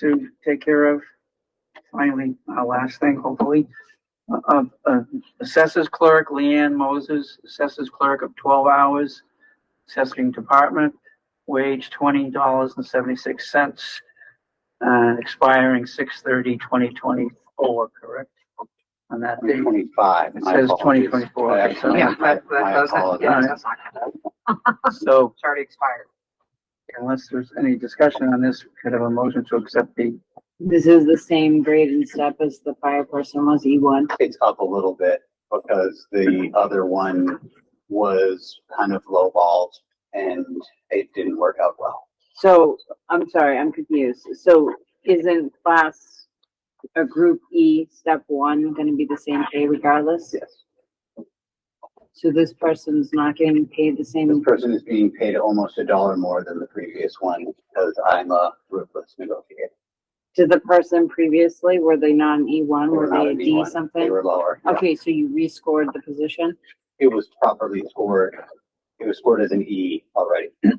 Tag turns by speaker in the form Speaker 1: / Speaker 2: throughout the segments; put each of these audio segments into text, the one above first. Speaker 1: to take care of. Finally, our last thing, hopefully, uh, uh, assessors clerk, Leanne Moses, assessors clerk of twelve hours, assessing department, wage twenty dollars and seventy-six cents, uh, expiring 6/30, 2024. correct? On that date.
Speaker 2: Mm-hmm. Twenty-five.
Speaker 1: It
Speaker 2: my
Speaker 1: says
Speaker 2: apologies.
Speaker 1: 2024,
Speaker 2: I
Speaker 1: okay, so-
Speaker 2: apologize.
Speaker 3: Yeah, that- that
Speaker 2: I
Speaker 3: doesn't-
Speaker 2: apologize.
Speaker 3: yeah.
Speaker 1: So
Speaker 3: It's already expired.
Speaker 1: unless there's any discussion on this, could I have a motion to accept the,
Speaker 4: This is the same grade and step as the fire person was E one.
Speaker 2: It's up a little bit because the other one was kind of lowballed and it didn't work out well.
Speaker 4: So, I'm sorry, I'm confused. So isn't class a group E step one gonna be the same pay regardless?
Speaker 2: Yes.
Speaker 4: So this person's not getting paid the
Speaker 2: This
Speaker 4: same,
Speaker 2: person is being paid almost a dollar more than the previous one because I'm a ruthless negotiator.
Speaker 4: to the person previously, were they not an E one,
Speaker 2: They were
Speaker 4: were
Speaker 2: not
Speaker 4: they a
Speaker 2: an
Speaker 4: D
Speaker 2: E1. They
Speaker 4: something?
Speaker 2: were lower. yeah.
Speaker 4: Okay, so you rescored the position?
Speaker 2: It was properly scored. It was scored as an E already.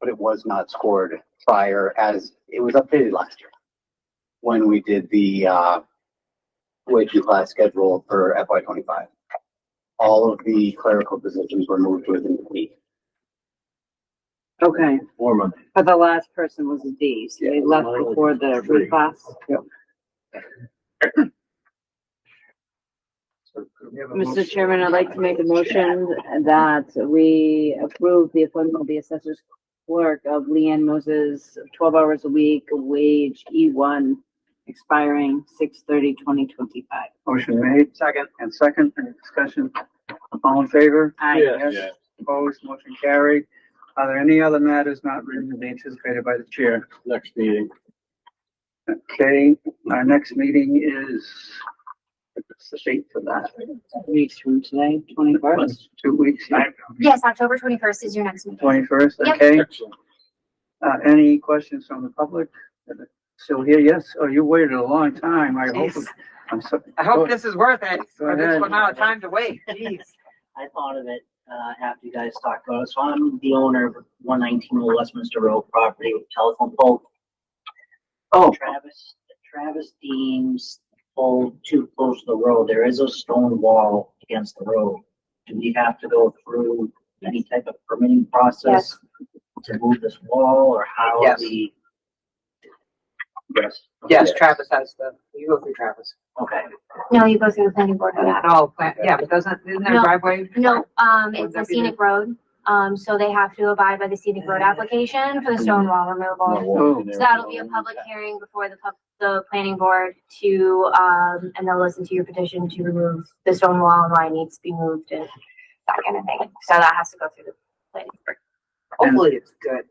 Speaker 2: But it was not scored prior as, it was updated last year. When we did the, uh, wage and class schedule for FY twenty-five. All of the clerical positions were moved within the week.
Speaker 4: Okay,
Speaker 5: Four months.
Speaker 4: but the last person was a D, so they
Speaker 2: Yeah.
Speaker 4: left before the reclass. Mr. Chairman, I'd like to make a motion that we approve the appointment of the assessor's clerk of Leanne Moses, twelve hours a week, wage E one, expiring 6/30, 2025.
Speaker 1: motion made
Speaker 3: Second.
Speaker 1: and second, any discussion? All in favor?
Speaker 4: Aye.
Speaker 1: Yes, opposed, motion carried. Are there any other matters not reasonably anticipated by the chair?
Speaker 5: Next meeting.
Speaker 1: Okay, our next meeting is, what's the date for that?
Speaker 4: Weeks from today, twenty-first.
Speaker 1: Two weeks,
Speaker 6: Yes, October twenty-first is your next meeting.
Speaker 1: twenty-first,
Speaker 6: Yep.
Speaker 1: okay?
Speaker 5: Excellent.
Speaker 1: Uh, any questions from the public? Still here, yes? Oh, you waited a long time. I hope,
Speaker 3: Jeez.
Speaker 1: I'm sorry.
Speaker 3: I hope this is worth it, for this
Speaker 1: ahead.
Speaker 3: amount of time to wait, jeez.
Speaker 7: I thought of it uh, after you guys talked about it. So I'm the owner of 119 Old Westminster Road property with telephone pole.
Speaker 1: Oh.
Speaker 7: Travis, Travis deems pole too close to the road. There is a stone wall against the road. Do we have to go through any type of permitting process to move this wall or how
Speaker 3: Yes.
Speaker 7: the?
Speaker 2: Yes.
Speaker 3: Yes, Travis has the, you go through Travis.
Speaker 7: Okay.
Speaker 6: No, you go through the planning board for that.
Speaker 3: Oh, plant- yeah, but doesn't, isn't there a
Speaker 6: No.
Speaker 3: driveway?
Speaker 6: No, um,
Speaker 3: Would
Speaker 6: it's
Speaker 3: that
Speaker 6: a
Speaker 3: be the-
Speaker 6: scenic road, um, so they have to abide by the scenic road application for the stone wall removal. So that'll be a public hearing before the pub, the planning board to, um, and they'll listen to your petition to remove the stone wall and why it needs to be moved and that kind of thing. So that has to go through the planning board.
Speaker 3: Hopefully it's good.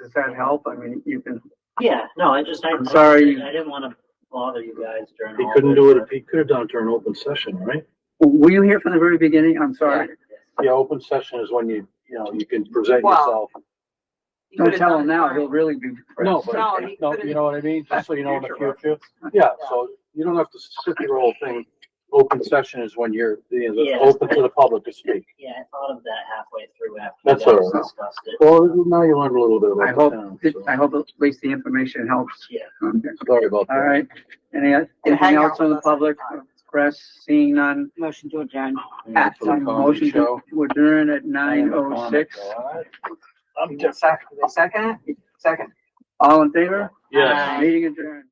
Speaker 1: Does that help? I mean, you can,
Speaker 7: Yeah, no, I just, I.
Speaker 1: I'm sorry.
Speaker 7: I didn't want to bother you guys during.
Speaker 5: He
Speaker 7: all
Speaker 5: couldn't
Speaker 7: this,
Speaker 5: do
Speaker 7: but-
Speaker 5: it, he could have done it during open session, right?
Speaker 1: were you here from the very beginning? I'm sorry.
Speaker 5: Yeah, open session is when you, you know, you can present
Speaker 3: Well,
Speaker 5: yourself.
Speaker 3: You
Speaker 1: Don't
Speaker 3: could've
Speaker 1: tell
Speaker 3: done
Speaker 1: him
Speaker 3: it
Speaker 1: now,
Speaker 3: during-
Speaker 1: he'll really be
Speaker 5: No,
Speaker 1: depressed.
Speaker 5: but,
Speaker 3: No, he
Speaker 5: no,
Speaker 3: could've-
Speaker 5: you know what I mean? Just so you know in the
Speaker 1: Future
Speaker 5: future. Yeah, so you don't have to sit through the whole thing. Open session is when you're, you know,
Speaker 7: Yeah.
Speaker 5: open to the public to speak.
Speaker 7: Yeah, I thought of that halfway through after.
Speaker 5: That's
Speaker 7: you guys
Speaker 5: all right.
Speaker 7: Discussed it.
Speaker 5: Well, now you learned a little bit
Speaker 1: I
Speaker 5: about the town.
Speaker 1: hope,
Speaker 5: so
Speaker 1: I hope at least the information helps.
Speaker 7: Yeah.
Speaker 1: Okay.
Speaker 5: Sorry about that.
Speaker 1: All right. Any, anything
Speaker 3: hang out
Speaker 1: else from
Speaker 3: with
Speaker 1: the
Speaker 3: us anytime.
Speaker 1: public, press, seeing none?
Speaker 4: Motion to adjourn.
Speaker 5: Yeah, for the comedy
Speaker 1: Motion
Speaker 5: show.
Speaker 1: to adjourn at nine oh six.
Speaker 3: Second, second, second.
Speaker 1: All in favor?
Speaker 5: Yes.
Speaker 3: Aye.
Speaker 1: Meeting adjourned.